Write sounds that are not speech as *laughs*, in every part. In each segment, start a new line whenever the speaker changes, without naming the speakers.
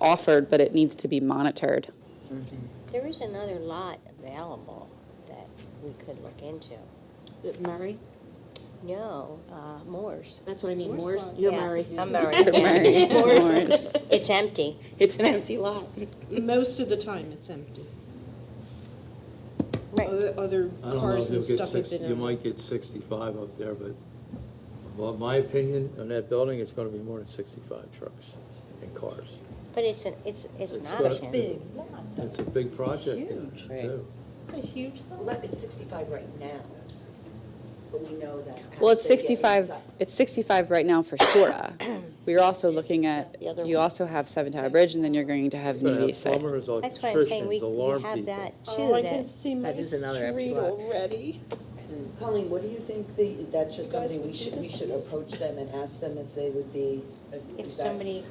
offered, but it needs to be
*laughs*
monitored.
There is another lot available that we could look into.
Murray,
No, uh, Moore's.
that's what I mean,
Moore's
Moore's,
Lot.
you're
Yeah,
Murray.
I'm Murray,
*laughs*
Murray,
yes. Moore's.
Moore's.
It's empty.
It's an empty lot.
Most of the time, it's empty. Other, other
I don't know if
cars
you'll
and
get
stuff have
six,
been.
you
out.
might get sixty-five up there, but, well, my opinion on that building, it's gonna be more than sixty-five trucks and cars.
But it's an, it's, it's
It's
an
got-
option.
Big.
It's a big project, yeah,
Huge.
too.
It's a huge lot.
Well, It's sixty-five right now, but we know that.
Well, it's
as they get
65,
inside-
it's 65 right now for Shora. We're also looking at,
The other
you
one.
also have Seven Tower Bridge, and then you're going to have
You're gonna
New
have
East Side.
plumbers,
That's what I'm saying, we we
electricians, alarm
have
people.
that too,
Oh, I can
that,
see my
That is another empty
street
lot.
already.
Colleen, what do you think the, that's just
You guys
something we
would do
should, we
this?
should approach them and ask them if they would be. uh,
if
is that-
somebody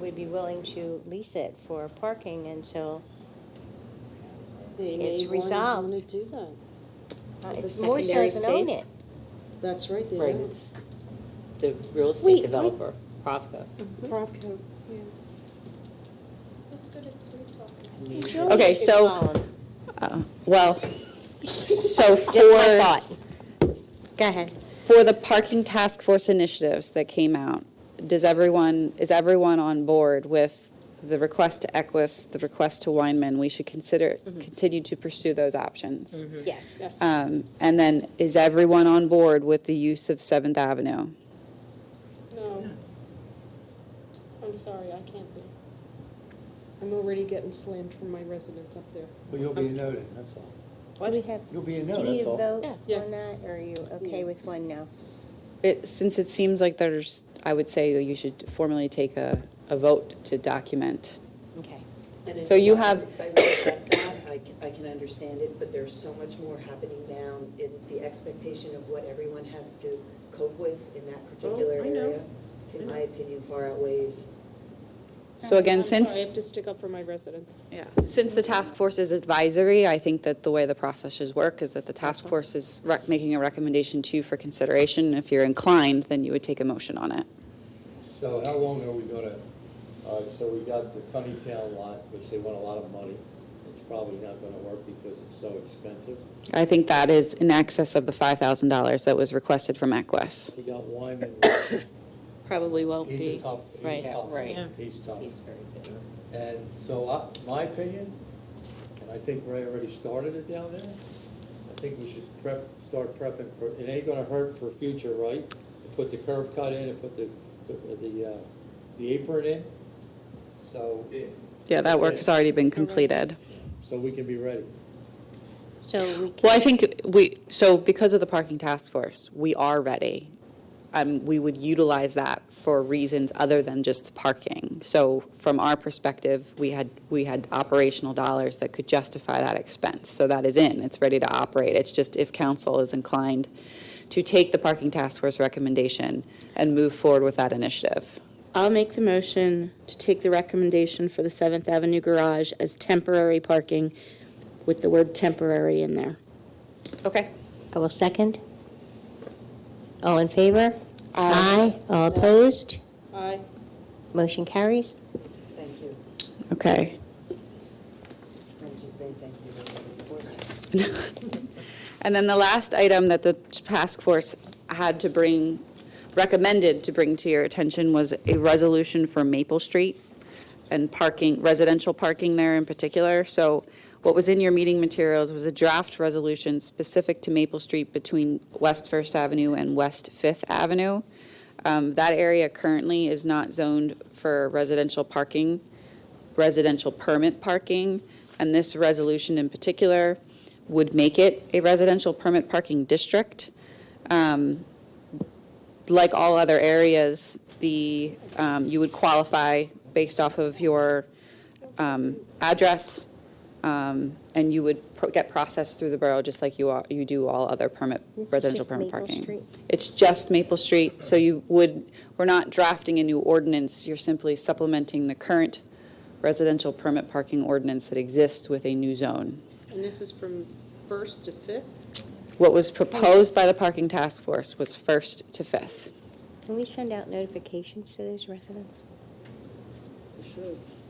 would be willing to lease it for parking until,
They
It's
may
resolved.
want to Oh, do that.
uh,
It's a
it's- Moore's
secondary
doesn't own
space.
it.
That's right, they
Right,
are.
it's the real
Wait,
estate
wait.
developer, Profco.
Mm-hmm. Propco.
That's good at sweet talking.
Julie
Okay,
is
so
following.
Well, so
Just my
for,
thought. Go ahead.
for the parking task force initiatives that came out, does everyone, is everyone on board with the request to Equus, the request to Weinman? We should consider,
Mm-hmm.
continue to pursue those options.
Yes.
Yes.
Um, And then, is everyone on board with the use of Seventh Avenue?
No. I'm sorry, I can't be. I'm already getting slammed from my residents up there.
Well, you'll be a no then, that's all.
Do we have,
You'll be a no,
do you
that's all.
vote
Yeah.
on that, or are you okay with one no?
It, since it seems like there's, I would say you should formally take a, a vote to document.
Okay.
And
So
if
you have-
I respect that, I can, I can understand it, but there's so much more happening now in the expectation of what everyone has to cope with in that particular
Oh, I know.
area.
I
In
know.
my opinion, far outweighs.
So again,
I'm
since,
sorry, I have to stick up for my residents.
since the task force is advisory, I think that the way the process should work is that the task force is rec- making a recommendation to you for consideration. If you're inclined, then you would take a motion on it.
So how long are we gonna, uh, so we got the Town lot, which they want a lot of money. It's probably not gonna work because it's so expensive.
I think that is in excess of the five thousand dollars that was requested from Equus.
We got Wyman,
Probably won't
he's a
be.
tough,
Right,
he's tough.
right. Yeah.
He's tough.
He's very big.
And so I, my opinion, and I think Ray already started it down there, I think we should prep, start prepping for, it ain't gonna hurt for future, right? To put the curb cut in and put the, the, the, uh, the apron in, so,
Yeah, that work has already been completed.
so we can be ready.
So we can.
Well, I think we, so because of the parking task force, we are ready. Um, we would utilize that for reasons other than just parking. So from our perspective, we had, we had operational dollars that could justify that expense. So that is in, it's ready to operate. It's just if council is inclined to take the parking task force recommendation and move forward with that initiative.
I'll make the motion to take the recommendation for the Seventh Avenue garage as temporary parking with the word temporary in there.
Okay.
I will second. All in favor? Aye. All opposed?
I,
Motion carries.
Thank you.
Okay.
I'm just saying thank you to everybody for that.
*laughs* And then the last item that the task force had to bring, recommended to bring to your attention was a resolution for Maple Street and parking, residential parking there in particular. So what was in your meeting materials was a draft resolution specific to Maple Street between West First Avenue and West Fifth Avenue. Um, That area currently is not zoned for residential parking, residential permit parking. And this resolution in particular would make it a residential permit parking district. Um, Like all other areas, the, um, you would qualify based off of your um, address, um, and you would pro- get processed through the borough, just like you are, you do all other permit,
This is
residential
just
permit
Maple
parking.
Street.
It's just Maple Street, so you would, we're not drafting a new ordinance, you're simply supplementing the current residential permit parking ordinance that exists with a new zone.
and this is from first to fifth?
What was proposed by the parking task force was first to fifth.
Can we send out notifications to those residents?